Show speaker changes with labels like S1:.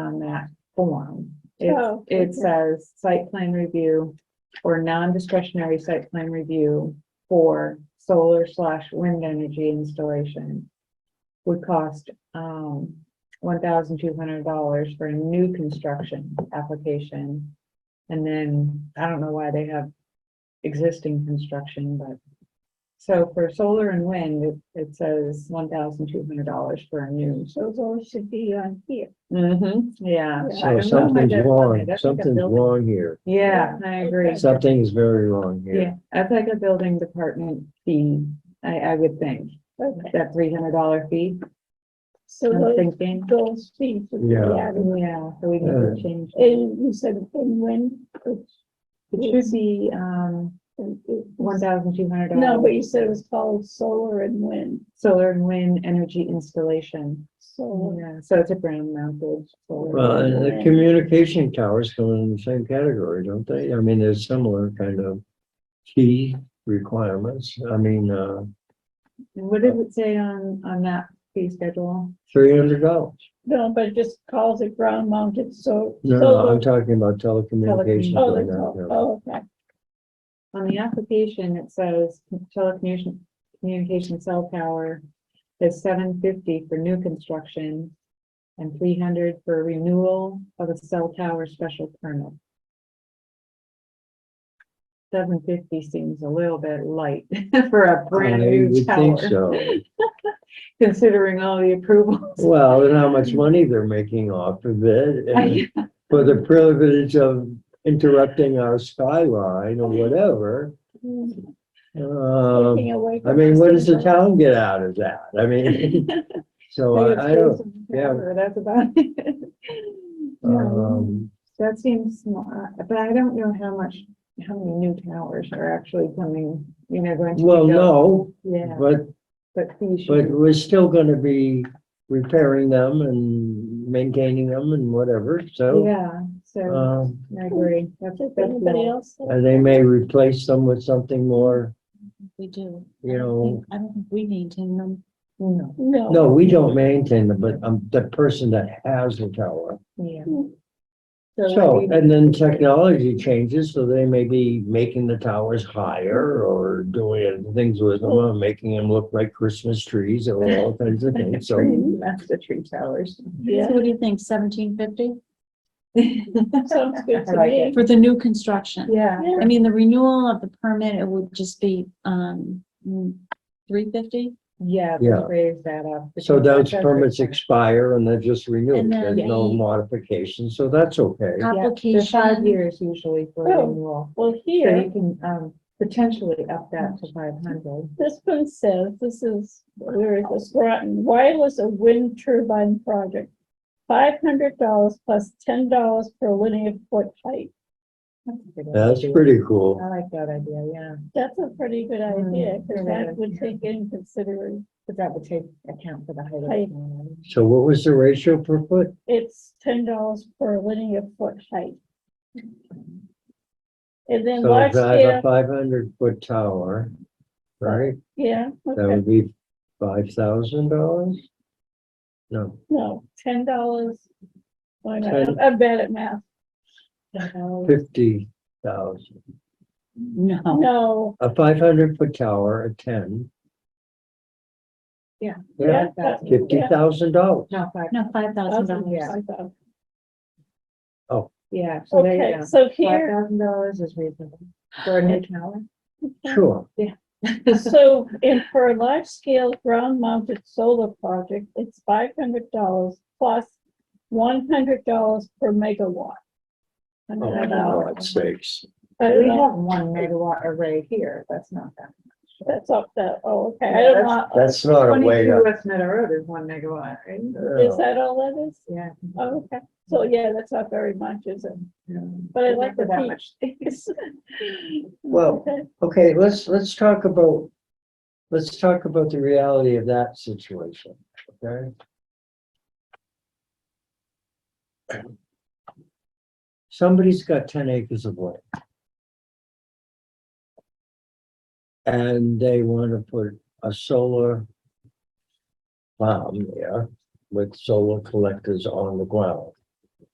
S1: on that form. It,
S2: Oh,
S1: it says site plan review or non-discretionary site plan review for solar slash wind energy installation would cost, um, one thousand two hundred dollars for a new construction application. And then, I don't know why they have existing construction, but so for solar and wind, it, it says one thousand two hundred dollars for a new
S2: So those should be on here.
S1: Mm-hmm, yeah.
S2: Yeah.
S1: I
S3: So
S1: don't know why
S3: something's
S1: that's funny.
S3: wrong,
S1: That's like a
S3: something's
S1: building-
S3: wrong here.
S1: Yeah, I agree.
S2: Okay.
S3: Something's very wrong here.
S1: Yeah, that's like a building department fee, I, I would think,
S2: Okay,
S1: that three hundred dollar fee,
S2: so
S1: I'm
S2: those,
S1: thinking.
S2: those fees would be
S3: Yeah.
S2: added.
S1: Yeah, so we need to change,
S2: And you said, and when, it's-
S1: it should be, um,
S2: it- it-
S1: one thousand two hundred
S2: no,
S1: dollars.
S2: but you said it was called solar and wind,
S1: Solar and wind energy installation,
S2: solar.
S1: yeah, so it's a ground mounted. solar.
S3: Well, and the
S2: Yeah.
S3: communication towers come in the same category, don't they? I mean, there's similar kind of key requirements. I mean, uh,
S1: And What did it say on, on that fee schedule?
S3: three hundred dollars.
S2: No, but it just calls it ground mounted, so.
S3: No, no,
S2: solar-
S3: I'm talking about telecommunications.
S2: Oh,
S3: right
S2: that's
S3: now,
S2: all,
S3: yeah.
S2: oh, okay,
S1: On the application, it says telecommunication, communication cell tower is seven fifty for new construction and three hundred for renewal of a cell tower special permit. Seven fifty seems a little bit light for a brand
S3: I
S1: new
S3: would
S1: tower,
S3: think so.
S1: considering all the approvals.
S3: Well, and how much money they're making off of it and
S1: I-
S3: for the privilege of interrupting our skyline or whatever. Um,
S2: Taking away
S3: I
S2: from
S3: mean, what does the
S2: solar.
S3: town get out of that? I mean, so I, I don't, yeah.
S1: That's about it. Yeah.
S3: um,
S1: That seems small, uh, but I don't know how much, how many new towers are actually coming, you know, going to. be
S3: well,
S1: built.
S3: no,
S1: Yeah,
S3: but,
S1: but we
S3: but
S1: should,
S3: we're still gonna be repairing them and maintaining them and whatever, so,
S1: yeah, so
S3: um,
S1: I agree. That's,
S2: Does
S1: that's
S2: anybody
S1: all.
S2: else?
S3: and they may replace them with something more,
S4: We do.
S3: you
S4: I don't
S3: know,
S4: think- I don't think we maintain them.
S1: No,
S2: No,
S3: No, we don't maintain them, but um, the person that has the tower.
S1: yeah.
S4: Hmm.
S3: So, and then technology changes, so they may be making the towers higher or doing things with them, or making them look like Christmas trees or all kinds of things, so.
S1: That's the tree towers.
S2: yeah,
S4: So what do you think, seventeen fifty
S2: sounds good
S1: I
S2: to
S1: like
S2: me.
S1: it.
S4: for the new construction?
S1: Yeah,
S2: Yeah.
S4: I mean, the renewal of the permit, it would just be, um, three fifty?
S1: yeah,
S3: Yeah.
S1: just raise that up.
S3: So
S1: because
S3: those
S1: that's-
S3: permits expire and they're just renewed,
S4: And then Uh,
S3: there's no
S4: the-
S3: modification, so that's okay.
S1: Yeah, they're five
S4: Application,
S1: years usually for
S2: Oh.
S1: renewal.
S2: Well,
S1: So
S2: here.
S1: you can, um, potentially up that to five hundred.
S2: This one says, this is, where is this, Groton, wireless or wind turbine project. Five hundred dollars plus ten dollars per linear foot height.
S3: That's pretty
S1: I
S3: cool.
S1: like that idea, yeah,
S2: That's a pretty good
S1: Hmm,
S2: idea,
S1: you're
S2: because that
S1: right.
S2: would take in consideration,
S1: but that would take account for the height. of
S2: Height.
S1: the building.
S3: So what was the ratio per foot?
S2: it's ten dollars per linear foot height. And then
S3: So
S2: large
S3: if I have a
S2: scale,
S3: five hundred foot tower, right?
S2: yeah,
S3: That
S2: okay,
S3: would be five thousand dollars? No,
S2: no, ten dollars. Why not,
S3: Ten.
S2: I'm bad at math,
S1: So,
S3: fifty thousand.
S4: no,
S2: no,
S3: A five hundred foot tower, a ten.
S1: Yeah.
S3: Yeah,
S2: Yeah, that's-
S3: fifty thousand dollars.
S1: No, five,
S4: no, five thousand
S2: thousand,
S4: dollars.
S1: yeah.
S2: five thousand.
S1: yeah, so there you
S2: Okay,
S1: go.
S2: so
S1: Five
S2: here,
S1: thousand dollars is reasonable for a new tower.
S3: Sure,
S2: So, and for a large scale ground mounted solar project, it's five hundred dollars plus one hundred dollars per megawatt. Uh, I
S3: oh,
S2: don't
S3: for
S2: know.
S3: God's sakes.
S2: I
S1: We
S2: don't know.
S1: have one megawatt array here, that's not that.
S2: That's up there, oh, okay, I
S1: Yeah,
S2: don't know,
S3: That's not a way Uh,
S1: Twenty-two
S3: to.
S1: West Meadow Road is one megawatt, right?
S2: is that all that is?
S1: Yeah.
S2: Oh, Okay, so yeah, that's not very much, is it?
S1: But
S2: But I like the
S1: that
S2: peach.
S1: much.
S3: Well,
S2: Okay.
S3: okay, let's, let's talk about, let's talk about the reality of that situation, okay? Somebody's got ten acres of land. And they want to put a solar farm there with solar collectors on the ground.